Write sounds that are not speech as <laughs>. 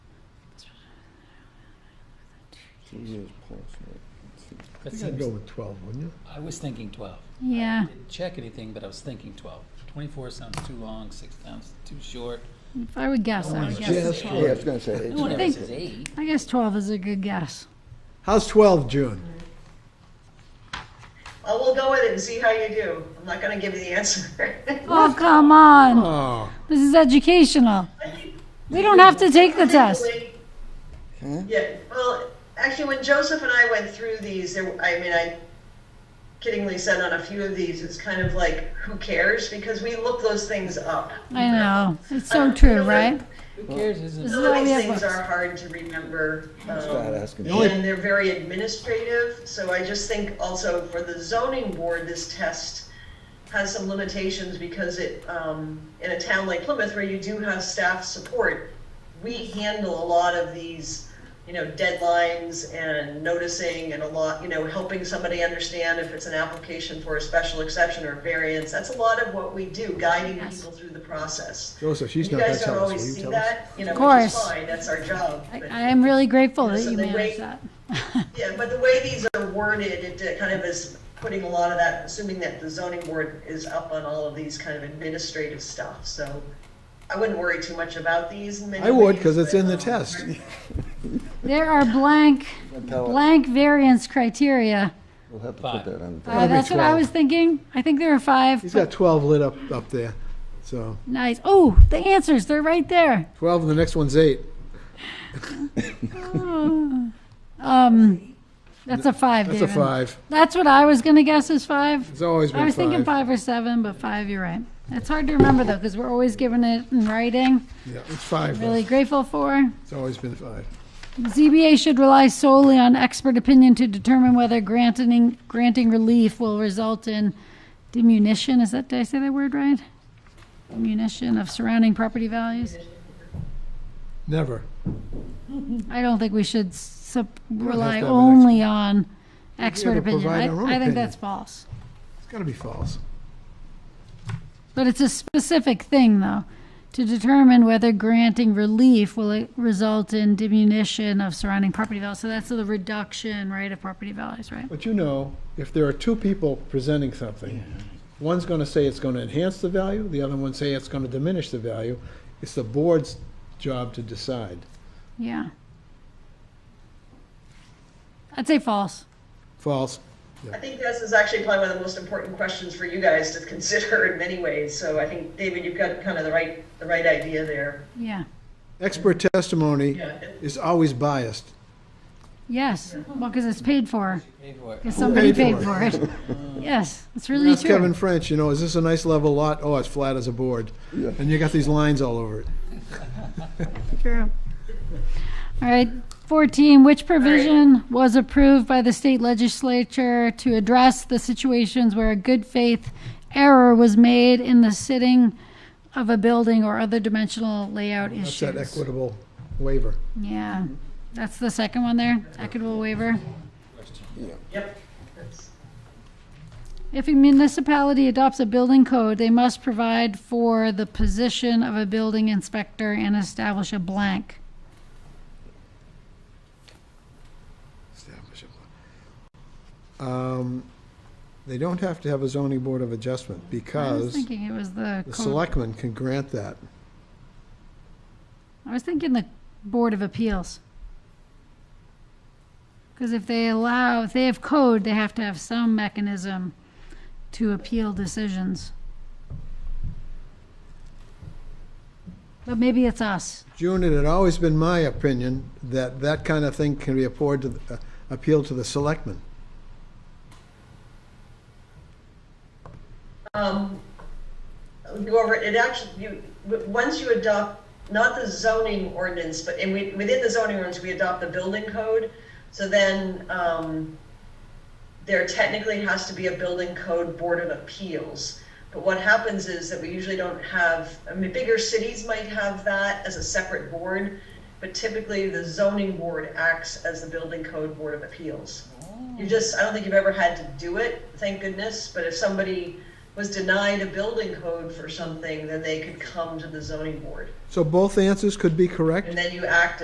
Jesus, Paul I I think I'd go with 12, wouldn't you? I was thinking twelve. Yeah, Didn't check anything, but I was thinking twelve. Twenty-four sounds too long, six sounds too short. if I would guess, I would Yeah, it's Yes. guess, Yeah, I was gonna say, No it's- one ever think- says eight. I guess 12 is a good guess. How's 12, June? Oh, we'll go with it and see how you do. I'm not gonna give you the answer. <laughs> Oh, come on, Oh, this is educational. We don't have to take the test. Huh? Yeah, well, actually, when Joseph and I went through these, there, I mean, I kiddingly said on a few of these, it's kind of like, who cares? Because we look those things up. I know, it's so true, right? Who cares? Isn't This it? is why Those we have things are books. hard to remember. start um, asking. The only- And they're very administrative, so I just think also for the zoning board, this test has some limitations because it, um, in a town like Plymouth where you do have staff support, we handle a lot of these, you know, deadlines and noticing and a lot, you know, helping somebody understand if it's an application for a special exception or variance. That's a lot of what we do, guiding people through the process. Joseph, she's You not going guys to don't tell us. Will always you see tell us? that, you know, Of which is course. fine, that's our job. I, but- I am really grateful that So you they managed wait- that. <laughs> yeah, but the way these are worded, it uh, kind of is putting a lot of that, assuming that the zoning board is up on all of these kind of administrative stuff, so I wouldn't worry too much about these in many I would, ways, because it's but, in the um, test. There are blank, We'll tell it. blank variance criteria. We'll have to Five. put that on. Uh, be that's what I 12. was thinking. I think there are five. He's but- got 12 lit up, up there. So Nice. Oh, the answers, they're <laughs> right there. 12, and the next one's 8. Um, that's a five, That's David. a 5. That's what I was gonna guess is five. It's always I been was thinking 5. five or seven, but five, you're right. It's hard to remember though, because we're always given it in writing. Yeah, it's 5. though. Really grateful for. It's always been 5. ZBA should rely solely on expert opinion to determine whether granting, granting relief will result in diminution, is that, did I say that word right? Diminution of surrounding property values. Never. I don't think we should sup- have rely to have an only on expert to opinion. provide our own I, I think opinion. that's false. It's got to be false. But it's a specific thing, though, to determine whether granting relief will uh, result in diminution of surrounding property values. So that's the reduction, right, of property values, right? But you know, if there are two people presenting something, one's going to say it's going to enhance the value, the other one say it's going to diminish the value. It's the board's job to decide. Yeah. I'd say false. False. I think this is actually probably one of the most important questions for you guys to <laughs> consider in many ways, so I think, David, you've got kind of the right, the right idea there. Yeah. Expert testimony Yeah. is always biased. Yes. Well, because it's paid for. Pay for it. Because somebody paid paid for for it. <laughs> Yes, it's really Ask Kevin true. French, you know, is this a nice level lot? Oh, it's flat as a board. Yeah. And you got these lines all over it. True. All right. 14, which provision was approved by the state legislature to address the situations where a good faith error was made in the sitting of a building or other dimensional layout That's that issues? equitable waiver. Yeah, that's the second one there, equitable waiver. Yep. That's- If a municipality adopts a building code, they must provide for the position of a building inspector and establish a blank. Establish a law. Um, They don't have to have a zoning board of adjustment I was because thinking it was the the code. selectmen can grant that. I was thinking the Board of Appeals. Because if they allow, if they have code, they have to have some mechanism to appeal decisions. But maybe it's us. June, it had always been my opinion that that kind of thing can be appealed to, the- uh, appealed to the selectmen. Um, go over, it It actually, you, w- once you adopt, not the zoning ordinance, but, and we, within the zoning ordinance, we adopt the building code. So then, um, there technically has to be a building code board of appeals. But what happens is that we usually don't have, I mean, bigger cities might have that as a separate board, but typically the zoning board acts as the building code board of appeals. You just, I don't think you've ever had to do it, thank goodness, but if somebody was denied a building code for something, then they could come to the zoning board. So both answers could be correct? And then you act